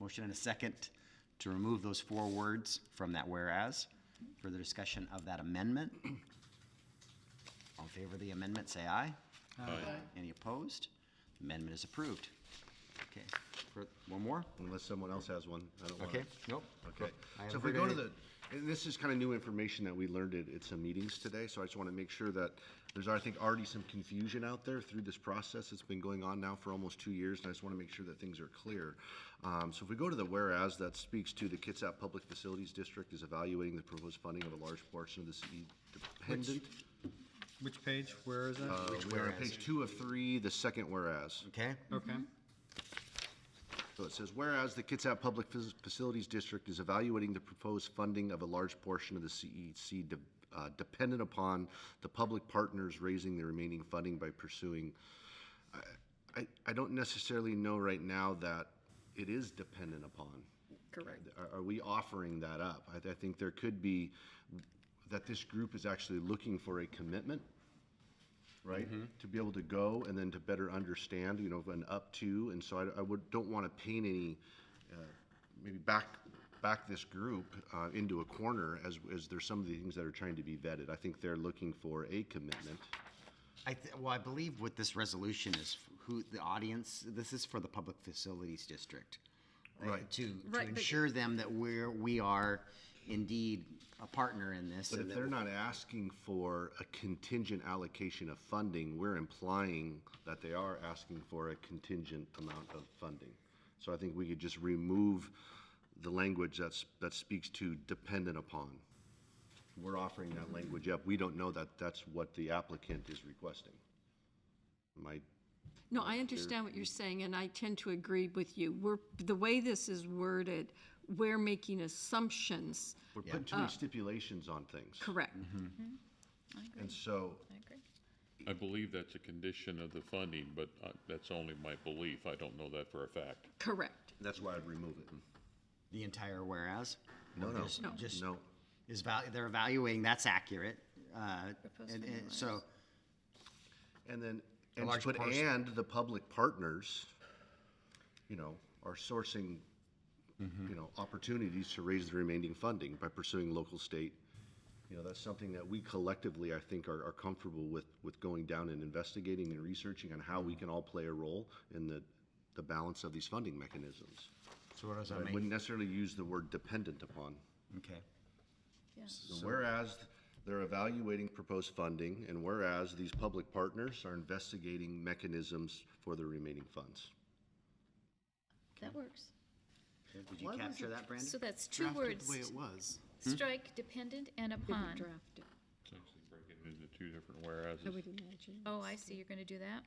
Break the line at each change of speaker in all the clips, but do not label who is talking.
Motion and a second to remove those four words from that whereas. Further discussion of that amendment? All in favor of the amendment, say aye. Any opposed? Amendment is approved. Okay, for- one more?
Unless someone else has one, I don't want
Okay,
to.
nope.
Okay,
I
so
haven't
if we
heard
go to
any.
the, and this is kind of new information that we learned at, at some meetings today, so I just want to make sure that there's, I think, already some confusion out there through this process. It's been going on now for almost two years, and I just want to make sure that things are clear. Um, so if we go to the whereas, that speaks to the Kitsap Public Facilities District is evaluating the proposed funding of a large portion of the city dependent.
Which page, where is that?
Uh, we are on page two of three, the second whereas.
Okay,
Okay,
So it says, whereas the Kitsap Public Fac- Facilities District is evaluating the proposed funding of a large portion of the CEC de- uh, dependent upon the public partners raising the remaining funding by pursuing, I, I, I don't necessarily know right now that it is dependent upon. Correct. Are, are we offering that up? I, I think there could be, that this group is actually looking for a commitment right? To be able to go and then to better understand, you know, an up to, and so I, I would, don't want to paint any, uh, maybe back, back this group uh, into a corner as, as there's some of the things that are trying to be vetted. I think they're looking for a commitment.
I, th- well, I believe what this resolution is, who, the audience, this is for the Public Facilities District. uh,
Right.
To, to
Right, but-
ensure them that we're, we are indeed a partner in this.
But
and
if
that
they're not asking for a contingent allocation of funding, we're implying that they are asking for a contingent amount of funding. So I think we could just remove the language that's, that speaks to dependent upon. We're offering that language up. We don't know that that's what the applicant is requesting. My,
No, I understand what you're saying, and I tend to agree with you. We're, the way this is worded, we're making assumptions,
we're putting too many stipulations on things.
correct?
Mm-hmm.
And so
I believe that's a condition of the funding, but uh, that's only my belief. I don't know that for a fact.
Correct.
that's why I'd remove it.
The entire whereas?
No, no,
Just- Just,
no.
is val, they're evaluating, that's accurate. uh, And, and so,
And then, and
large
put
parcel.
and the public partners, you know, are sourcing,
Mm-hmm.
you know, opportunities to raise the remaining funding by pursuing local, state. You know, that's something that we collectively, I think, are, are comfortable with, with going down and investigating and researching on how we
Mm-hmm.
can all play a role in the, the balance of these funding mechanisms.
so what does
I
that mean?
wouldn't necessarily use the word dependent upon.
Okay,
So Whereas they're evaluating proposed funding, and whereas these public partners are investigating mechanisms for the remaining funds.
That works.
did you capture that, Brandon?
So that's two words. The way it was. Strike dependent and upon.
It's actually breaking into two different whereas.
imagine.
Oh, I see, you're gonna do that?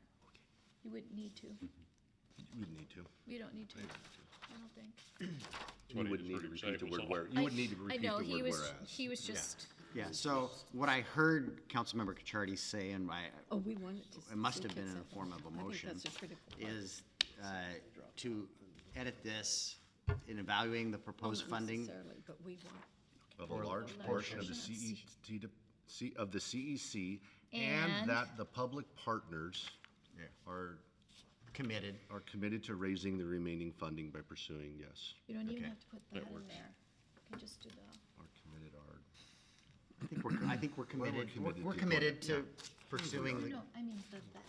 You wouldn't need to.
You would need to.
You don't need to, I don't think.
You wouldn't need to repeat the word where, you wouldn't need to
I-
repeat the
I know,
word
he was,
whereas.
he was just,
Yeah, so what I heard Councilmember Cachardi say, and I,
Oh, we wanted to.
it must
see
have been in
kids
the form of a
I think
motion,
that's a critical part.
is uh, to edit this in evaluating the proposed funding.
Necessarily, But we
Of
want,
a large portion of the CEC, de- C- of the CEC, and
And-
that the public partners are,
Committed.
are committed to raising the remaining funding by pursuing, yes,
you don't even
Okay.
have to put that in there. You can just do the,
are committed are.
I think we're, I think we're committed, we're-
committed
we're
to
committed to pursuing the
no, I mean the that.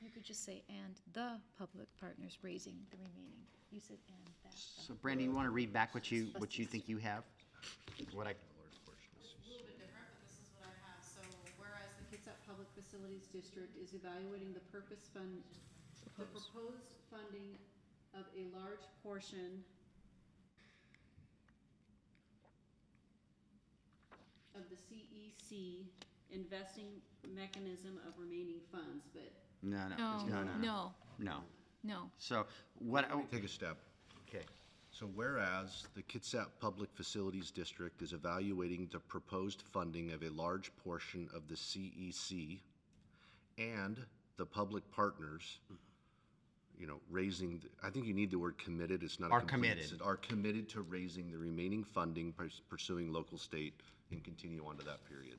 You could just say, and the public partners raising the remaining. You said and that. the."
So Brandy, you want to read back what you, what you think you have? What I,
little bit different, but this is what I have. So whereas the Kitsap Public Facilities District is evaluating the purpose fund, the proposed funding of a large portion of the CEC investing mechanism of remaining funds, but
no, no, no, no, no.
No,
No.
no.
So what, I-
Take a step.
okay,
So whereas the Kitsap Public Facilities District is evaluating the proposed funding of a large portion of the CEC and the public partners, you know, raising, the- I think you need the word committed, it's not. a
Are
complete
committed.
sen- Are committed to raising the remaining funding, purs- pursuing local, state, and continue on to that period.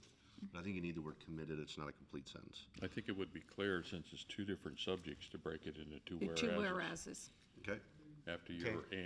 But I think you need the word committed, it's not a complete sentence.
I think it would be clear, since it's two different subjects, to break it into two
the two
whereas.
whereas's.
Okay?
After your